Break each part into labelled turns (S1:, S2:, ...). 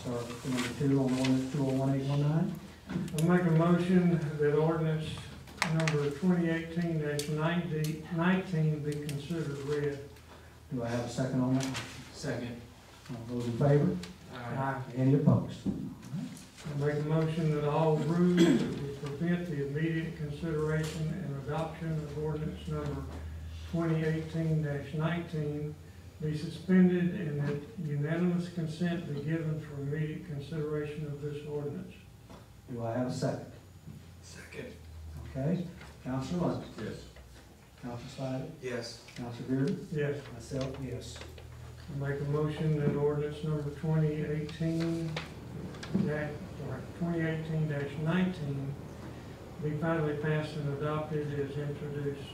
S1: Start with number two on ordinance two oh one eight one nine.
S2: I make a motion that ordinance number twenty eighteen 90 19 be considered read.
S1: Do I have a second on that?
S3: Second.
S1: All those in favor?
S2: Uh-huh.
S1: Any opposed?
S2: I make a motion that all rules that would prevent the immediate consideration and adoption of ordinance number twenty eighteen nineteen be suspended and that unanimous consent be given for immediate consideration of this ordinance.
S1: Do I have a second?
S3: Second.
S1: Okay, Counselor London,
S3: Yes.
S1: Counselor Spidey,
S3: Yes.
S1: Counselor Bearden,
S2: Yes.
S1: myself, yes.
S2: I Make a motion that ordinance number twenty eighteen that, or twenty eighteen nineteen be finally passed and adopted as introduced.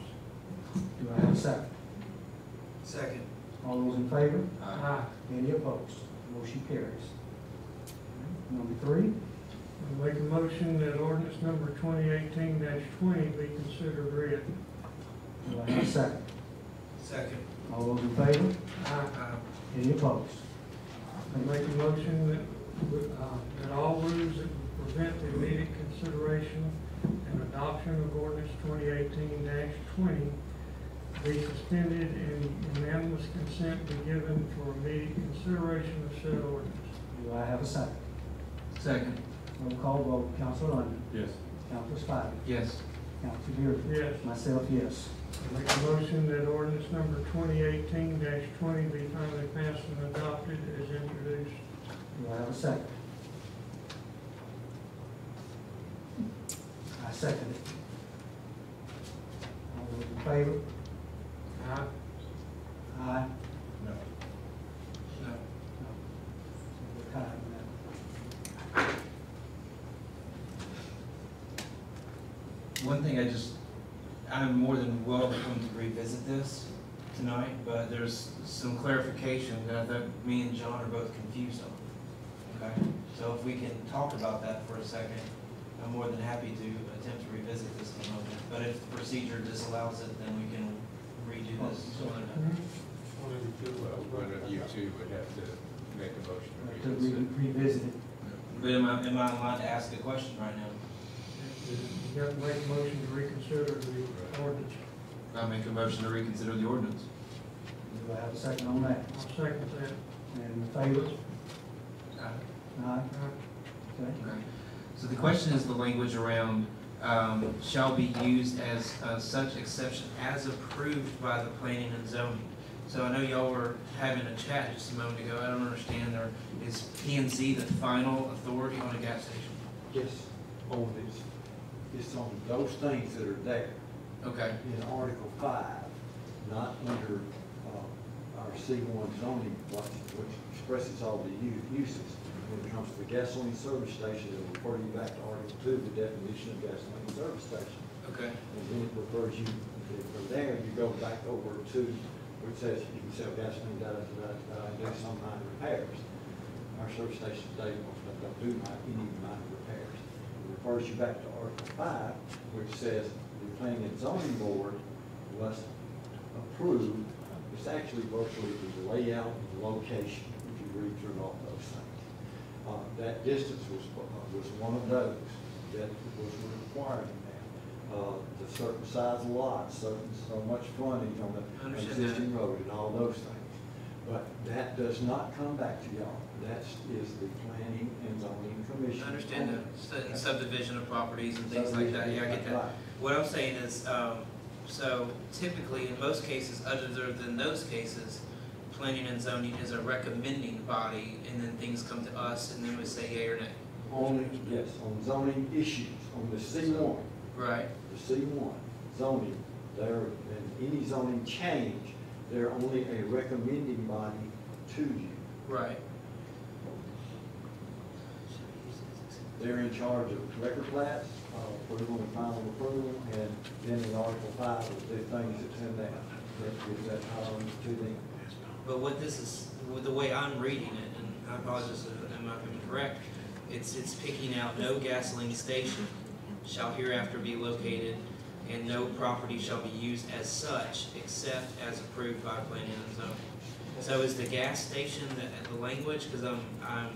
S1: Do I have a second?
S3: Second.
S1: All those in favor?
S2: Aye.
S1: Any opposed? Motion carries. Number three,
S2: I Make a motion that ordinance number twenty eighteen twenty be considered read.
S1: do I have a second?
S3: Second.
S1: All those in favor?
S2: Aye.
S1: Any opposed?
S2: I Make a motion that, uh, that all rules that would prevent the immediate consideration and adoption of ordinance twenty eighteen twenty be suspended and unanimous consent be given for immediate consideration of said ordinance.
S1: Do I have a second?
S3: Second.
S1: Roll call vote, Counselor London,
S4: Yes.
S1: Counselor Spidey,
S3: Yes.
S1: Counselor Bearden,
S2: Yes,
S1: myself, yes.
S2: I make a motion that ordinance number twenty eighteen twenty be finally passed and adopted as introduced.
S1: Do I have a second? I second it. All those in favor?
S2: Aye.
S1: Aye.
S4: No.
S3: No.
S1: We're tied on that.
S3: One thing I just, I'm more than welcome to revisit this tonight, but there's some clarification that I think me and John are both confused on. Okay? So if we can talk about that for a second, I'm more than happy to attempt to revisit this in a moment. But if the procedure disallows it, then we can redo this.
S4: Oh, One of uh, you two would have to make a motion
S1: We'll have
S4: to
S1: uh, To
S4: reconsider.
S1: re- revisit it.
S3: But am I, am I allowed to ask a question right now?
S2: uh, You got to make a motion to reconsider the ordinance.
S3: I make a motion to reconsider the ordinance.
S1: Do I have a second on that?
S2: I'll second that.
S1: And in favor? Aye.
S2: Aye.
S1: Okay.
S3: Okay. So the question is the language around, um, shall be used as, uh, such exception as approved by the planning and zoning. So I know y'all were having a chat just a moment ago, I don't understand, or is P and Z the final authority on a gas station?
S5: Yes, on this, it's on those things that are there
S3: Okay,
S5: in Article five, not under, uh, our C one zoning, which, which expresses all the u- uses. When it comes to the gasoline service station, it'll refer you back to Article two, the definition of gasoline service station.
S3: okay,
S5: And then it refers you, from there, you go back over to, which says you can sell gasoline, da, da, da, da, and do some minor repairs. Our service station today, most of them don't do mi- any minor repairs. It refers you back to Article five, which says the planning and zoning board must approve, it's actually virtually the layout and location, if you read through all those things. Uh, That distance was, uh, was one of those that was required in that. Uh, The certain size lots, certain, so much frontage on
S3: I
S5: the
S3: understand that.
S5: existing road and all those things. But that does not come back to y'all. That is the planning and zoning commission.
S3: I understand that, subdivision of properties and things like
S5: Subdivision,
S3: that, yeah, I get that.
S5: right.
S3: What I'm saying is, um, so typically in most cases, other than those cases, planning and zoning is a recommending body and then things come to us and then we say yea or nay.
S5: Only, yes, on zoning issues, on the C one.
S3: Right.
S5: the C one zoning, there, and any zoning change, they're only a recommending body to you.
S3: Right.
S5: They're in charge of record plats, uh, approval and final approval, and then in Article five, the things that's in there, that gives that power to them.
S3: But what this is, with the way I'm reading it, and I apologize if I'm not correct, it's, it's picking out no gasoline station shall hereafter be located and no property shall be used as such except as approved by planning and zoning. So is the gas station the, the language, cause I'm, I'm